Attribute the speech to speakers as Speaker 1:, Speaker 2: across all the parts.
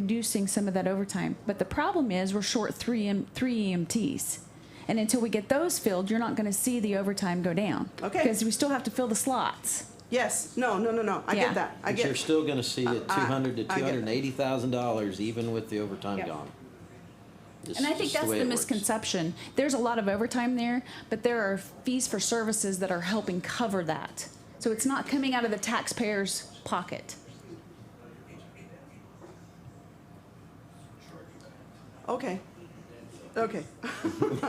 Speaker 1: reducing some of that overtime. But the problem is we're short three M, three EMTs. And until we get those filled, you're not gonna see the overtime go down.
Speaker 2: Okay.
Speaker 1: Because we still have to fill the slots.
Speaker 2: Yes, no, no, no, no, I
Speaker 1: Yeah.
Speaker 2: get that, I
Speaker 3: But you're
Speaker 2: get,
Speaker 3: still gonna see at two
Speaker 2: I-
Speaker 3: hundred to
Speaker 2: I
Speaker 3: two
Speaker 2: get
Speaker 3: hundred
Speaker 2: it.
Speaker 3: and eighty thousand dollars even with the overtime
Speaker 2: Yep.
Speaker 3: gone. It's
Speaker 1: And I think
Speaker 3: just
Speaker 1: that's
Speaker 3: way
Speaker 1: the
Speaker 3: it works.
Speaker 1: misconception. There's a lot of overtime there, but there are fees for services that are helping cover that. So it's not coming out of the taxpayer's pocket.
Speaker 2: okay, okay.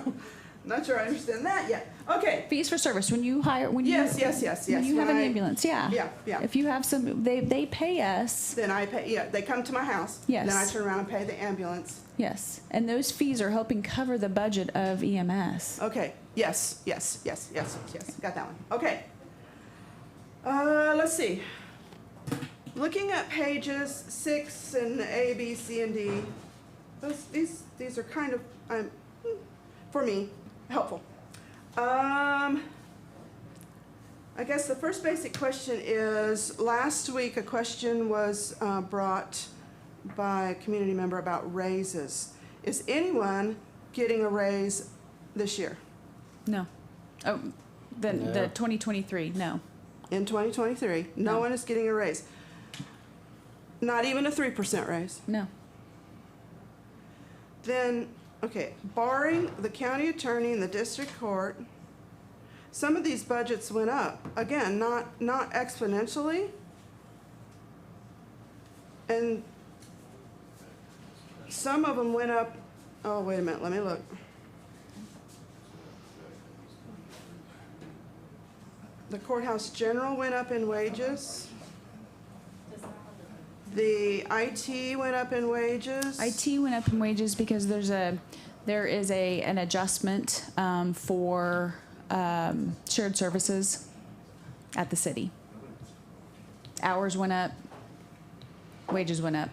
Speaker 2: Not sure I understand that yet, okay,
Speaker 1: Fees for service, when you hire, when you.
Speaker 2: Yes, yes, yes,
Speaker 1: when
Speaker 2: yes.
Speaker 1: you have an
Speaker 2: When I-
Speaker 1: ambulance, yeah.
Speaker 2: Yeah, yeah.
Speaker 1: If you have some, they, they pay us,
Speaker 2: then I pay, yeah, they come to my house. Then I
Speaker 1: Yes.
Speaker 2: turn around and pay the ambulance,
Speaker 1: yes. And those fees are helping cover the budget of E EMS.
Speaker 2: okay, yes, yes, yes, yes, yes, got that one, okay. Uh, let's see. Looking at pages six and A, B, C, and D, those, these, these are kind of, um, for me, helpful. Um, I guess the first basic question is, last week, a question was uh, brought by a community member about raises. Is anyone getting a raise this year,
Speaker 1: No. Oh, the,
Speaker 3: No.
Speaker 1: the twenty twenty-three, no.
Speaker 2: in 2023? No
Speaker 1: No.
Speaker 2: one is getting a raise. Not even a 3% raise.
Speaker 1: No.
Speaker 2: Then, okay, barring the county attorney and the district court, some of these budgets went up, again, not, not exponentially. And some of them went up, oh, wait a minute, let me look. The courthouse general went up in wages. The IT went up in wages.
Speaker 1: IT went up in wages because there's a, there is a, an adjustment um, for um, shared services at the city. Hours went up, wages went up,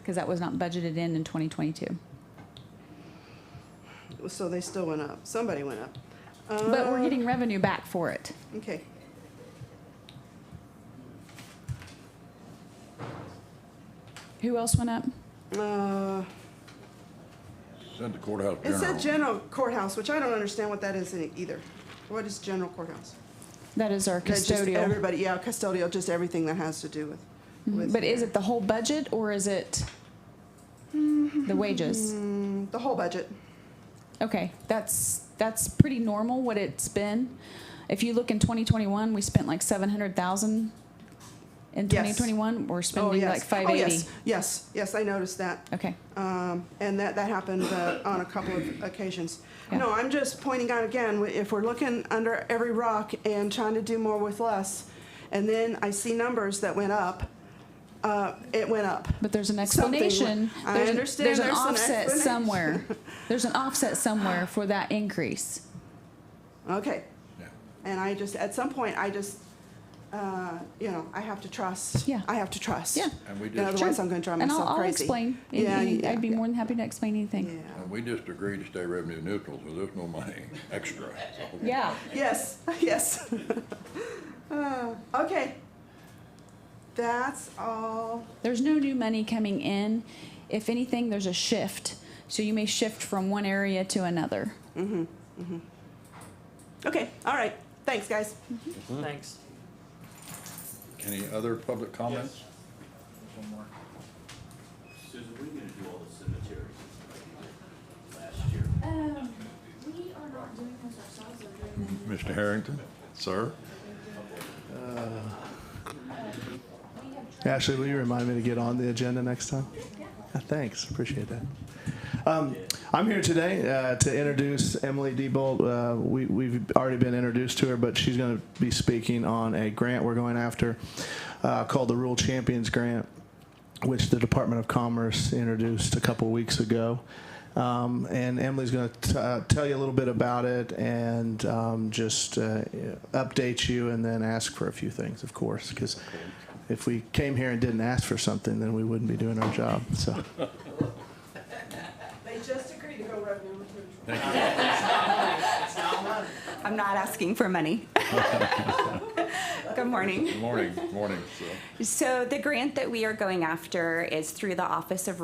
Speaker 1: because that was not budgeted in in 2022.
Speaker 2: So they still went up. Somebody went up.
Speaker 1: But we're
Speaker 2: Uh,
Speaker 1: getting revenue back for it.
Speaker 2: Okay.
Speaker 1: Who else went up?
Speaker 2: Uh,
Speaker 4: Send the courthouse
Speaker 2: It
Speaker 4: general.
Speaker 2: said general courthouse, which I don't understand what that is in- either. What is general courthouse?
Speaker 1: That is our
Speaker 2: That's just
Speaker 1: custodial.
Speaker 2: Everybody, yeah, custodial, just everything that has to do with. with-
Speaker 1: But is it the whole budget or is it the wages?
Speaker 2: Mm, The whole budget.
Speaker 1: Okay, that's, that's pretty normal what it's been. If you look in 2021, we spent like 700,000. In
Speaker 2: Yes.
Speaker 1: 2021, we're
Speaker 2: Oh,
Speaker 1: spending
Speaker 2: yes.
Speaker 1: like
Speaker 2: Oh, yes,
Speaker 1: 580.
Speaker 2: Yes, yes, I noticed that.
Speaker 1: Okay,
Speaker 2: Um, And that, that happened uh, on a couple of occasions.
Speaker 1: Yeah.
Speaker 2: No, I'm just pointing out again, if we're looking under every rock and trying to do more with less, and then I see numbers that went up, uh, it went up.
Speaker 1: but there's an
Speaker 2: Something went-
Speaker 1: explanation.
Speaker 2: I
Speaker 1: There's an-
Speaker 2: understand
Speaker 1: There's an
Speaker 2: there's an
Speaker 1: offset
Speaker 2: explanation.
Speaker 1: somewhere. There's an offset somewhere for that increase.
Speaker 2: Okay.
Speaker 4: Yeah.
Speaker 2: And I just, at some point, I just, uh, you know, I have to trust.
Speaker 1: Yeah.
Speaker 2: I have to trust.
Speaker 1: Yeah.
Speaker 4: And we
Speaker 2: Yeah,
Speaker 4: just,
Speaker 2: Otherwise, I'm gonna drive myself
Speaker 1: And I'll- I'll
Speaker 2: crazy.
Speaker 1: explain. Any-
Speaker 2: Yeah,
Speaker 1: any- I'd be
Speaker 2: yeah,
Speaker 1: more than happy to explain
Speaker 2: yeah.
Speaker 1: anything.
Speaker 4: and we just agreed to stay revenue neutral, so there's no money extra. so.
Speaker 1: Yeah.
Speaker 2: Yes, yes. Uh, Okay. That's all.
Speaker 1: There's no new money coming in. If anything, there's a shift. So you may shift from one area to another.
Speaker 2: Okay, all right. Thanks, guys.
Speaker 5: Thanks.
Speaker 4: Any other public comments?
Speaker 6: Susan, what are you gonna do all the cemeteries like you did last year?
Speaker 7: Um, we are not doing this ourselves, we're doing this
Speaker 4: Mr. Harrington, sir?
Speaker 8: Ashley, will you remind me to get on the agenda next time? Yeah, Thanks, appreciate that. Um, I'm here today uh, to introduce Emily Diebold. Uh, we, we've already been introduced to her, but she's going to be speaking on a grant we're going after uh, called the Rural Champions Grant, which the Department of Commerce introduced a couple weeks ago. Um, and Emily's going to uh, tell you a little bit about it and um, just uh, update you and then ask for a few things, of course, because if we came here and didn't ask for something, then we wouldn't be doing our job. So.
Speaker 2: They just agreed to go revenue neutral.
Speaker 9: I'm not asking for money.
Speaker 5: Good morning.
Speaker 4: Morning, morning, so.
Speaker 5: So the grant that we are going after is through the Office of